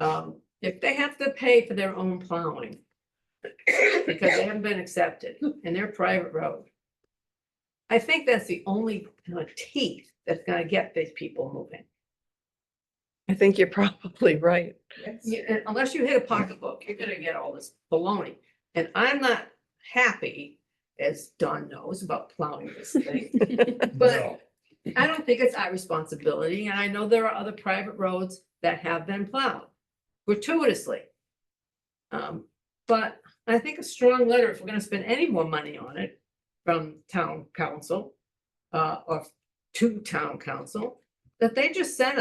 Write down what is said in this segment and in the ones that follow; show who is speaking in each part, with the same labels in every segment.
Speaker 1: um, if they have to pay for their own plowing. Because they haven't been accepted and they're private road. I think that's the only kind of teeth that's gonna get these people moving.
Speaker 2: I think you're probably right.
Speaker 1: You- and Unless you hit a pocketbook, you're gonna get all this baloney. And I'm not happy, as Don knows, about plowing this thing. But I don't think it's our responsibility, and I know there are other private roads that have been plowed gratuitously. Um, but I think a strong letter, if we're gonna spend any more money on it from town council, uh, or to town council, that they just send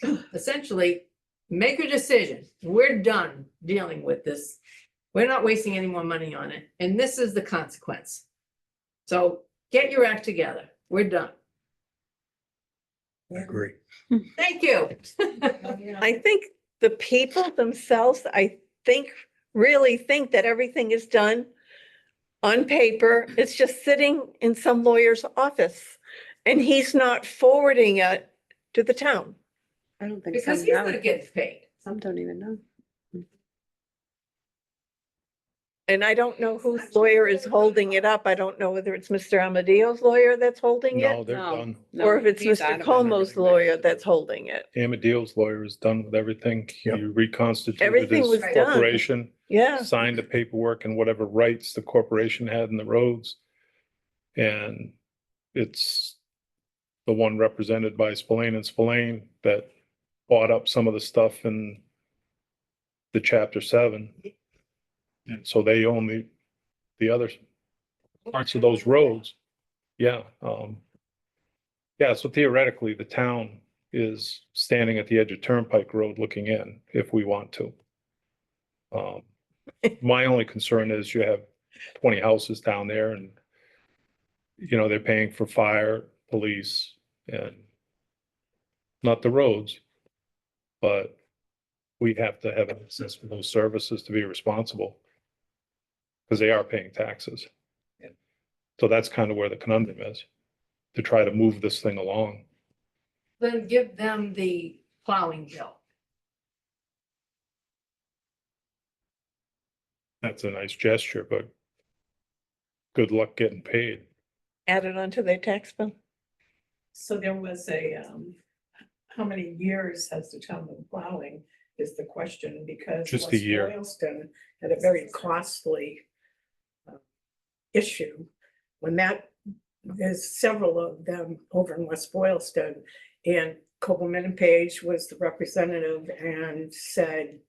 Speaker 1: them, essentially, make a decision. We're done dealing with this. We're not wasting any more money on it, and this is the consequence. So get your act together. We're done.
Speaker 3: I agree.
Speaker 1: Thank you.
Speaker 2: I think the people themselves, I think, really think that everything is done on paper. It's just sitting in some lawyer's office and he's not forwarding it to the town.
Speaker 4: I don't think.
Speaker 1: Because
Speaker 4: some
Speaker 1: he's
Speaker 4: know.
Speaker 1: gonna get paid.
Speaker 4: Some don't even know.
Speaker 2: And I don't know whose lawyer is holding it up. I don't know whether it's Mr. Amadeo's lawyer that's holding
Speaker 3: No,
Speaker 2: it
Speaker 3: they're
Speaker 4: No.
Speaker 3: done.
Speaker 4: No,
Speaker 2: or if it's
Speaker 4: he's adamant
Speaker 2: Mr.
Speaker 4: that
Speaker 2: Como's
Speaker 4: everything
Speaker 2: lawyer
Speaker 4: is-
Speaker 2: that's holding it.
Speaker 3: Amadeo's lawyer is done with everything.
Speaker 5: Yep.
Speaker 3: He
Speaker 2: Everything
Speaker 3: reconstituted
Speaker 2: was
Speaker 3: his
Speaker 2: done.
Speaker 3: corporation,
Speaker 2: Yeah.
Speaker 3: signed the paperwork and whatever rights the corporation had in the roads. And it's the one represented by Spillane and Spillane that bought up some of the stuff in the chapter seven. And so they own the, the other parts of those roads. Yeah, um. Yeah, so theoretically, the town is standing at the edge of Turnpike Road looking in if we want to. Um, my only concern is you have twenty houses down there and you know, they're paying for fire, police and not the roads, but we have to have access for those services to be responsible because they are paying taxes. So that's kind of where the conundrum is, to try to move this thing along.
Speaker 1: Then give them the plowing bill.
Speaker 3: That's a nice gesture, but good luck getting paid.
Speaker 2: Added onto their tax bill.
Speaker 6: So there was a, um, how many years has the town been plowing is the question because.
Speaker 3: Just a
Speaker 6: West
Speaker 3: year.
Speaker 6: Boylston had a very costly uh, issue when that, there's several of them over in West Boylston. And Copeland and Page was the representative and said,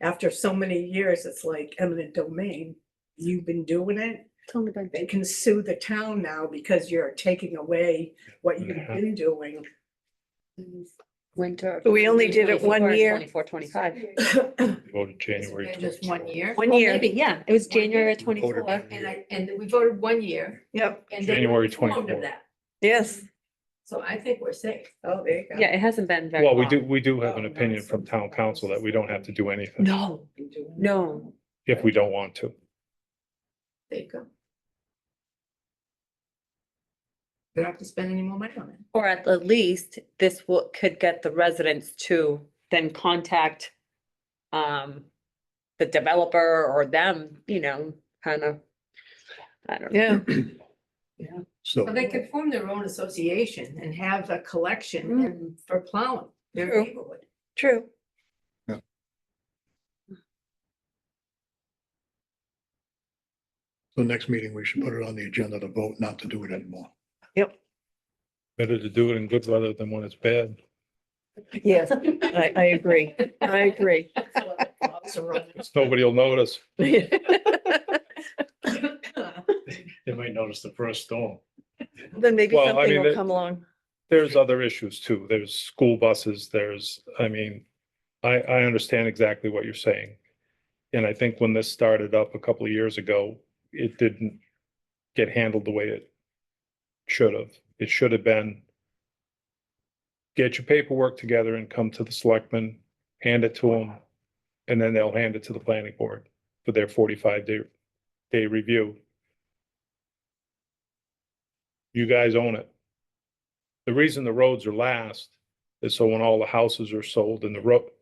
Speaker 6: after so many years, it's like eminent domain. You've been doing it
Speaker 4: It's only been
Speaker 6: they can sue the town now because you're taking away what you've
Speaker 3: Yeah.
Speaker 6: been doing.
Speaker 4: winter.
Speaker 2: We only did it one year.
Speaker 4: Twenty-four, twenty-five.
Speaker 3: Voted January.
Speaker 1: It's been Just one
Speaker 3: 24.
Speaker 1: year.
Speaker 2: One year.
Speaker 4: Maybe, yeah, it was
Speaker 1: One year.
Speaker 4: January
Speaker 3: We voted
Speaker 4: twenty-four.
Speaker 3: one
Speaker 1: And
Speaker 5: uh,
Speaker 3: year.
Speaker 1: I, and we voted one year.
Speaker 2: Yep.
Speaker 1: and they were
Speaker 3: January
Speaker 1: informed of
Speaker 3: 24.
Speaker 1: that.
Speaker 2: Yes.
Speaker 1: So I think we're safe.
Speaker 6: Oh, there you go.
Speaker 4: Yeah, it hasn't been very
Speaker 3: Well, we
Speaker 4: long.
Speaker 3: do, we do have an
Speaker 6: Oh,
Speaker 3: opinion
Speaker 6: nice.
Speaker 3: from town council that we don't have to do anything
Speaker 4: No,
Speaker 6: Been doing it.
Speaker 4: no.
Speaker 3: if we don't want to.
Speaker 1: There you go. We don't have to spend any more money on it.
Speaker 4: Or at the least, this will, could get the residents to then contact um, the developer or them, you know, kind of. I don't know.
Speaker 2: Yeah.
Speaker 5: So,
Speaker 1: So they could form their own association and have a collection
Speaker 4: Mm.
Speaker 1: for plowing their
Speaker 2: True.
Speaker 1: neighborhood.
Speaker 2: True.
Speaker 5: so next meeting, we should put it on the agenda to vote not to do it anymore.
Speaker 3: Better to do it in good weather than when it's bad.
Speaker 2: Yes, I, I agree. I agree.
Speaker 3: Because nobody will notice.
Speaker 2: Then
Speaker 5: They might notice the first storm.
Speaker 2: maybe
Speaker 3: Well, I
Speaker 2: something
Speaker 3: mean,
Speaker 2: will
Speaker 3: it-
Speaker 2: come along.
Speaker 3: There's other issues too. There's school buses, there's, I mean, I, I understand exactly what you're saying. And I think when this started up a couple of years ago, it didn't get handled the way it should have. It should have been get your paperwork together and come to the selectmen, hand it to them, and then they'll hand it to the planning board for their forty-five day, day review. You guys own it. The reason the roads are last is so when all the houses are sold and the road,